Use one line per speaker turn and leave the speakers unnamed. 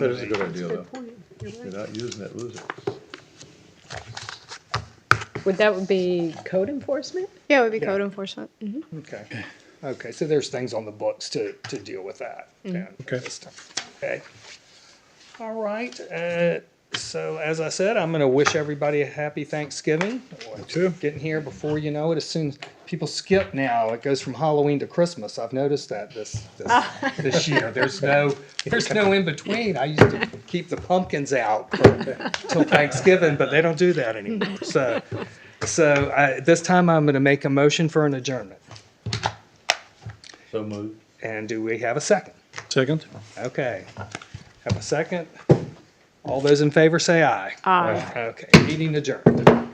That is a good idea,
Good
though.
point.
If
You're
you're
right.
not using it, lose it.
Would that be code enforcement?
Yeah, it would be
Yeah.
code enforcement. Mhm.
Okay, okay, so there's things on the books to, to deal with that. then.
Okay.
Okay. All right, uh, so as I said, I'm gonna wish everybody a happy Thanksgiving.
too.
Getting here before you know it, as soon as people skip now, it goes from Halloween to Christmas. I've noticed that this, this, this year. There's no, there's no in between. I used to keep the pumpkins out for- till Thanksgiving, but they don't do that anymore. So, so I, this time I'm gonna make a motion for an adjournment.
So moved.
And do we have a second?
Second?
Okay. Have a second? All those in favor say aye.
Aye.
Okay, meeting adjourned.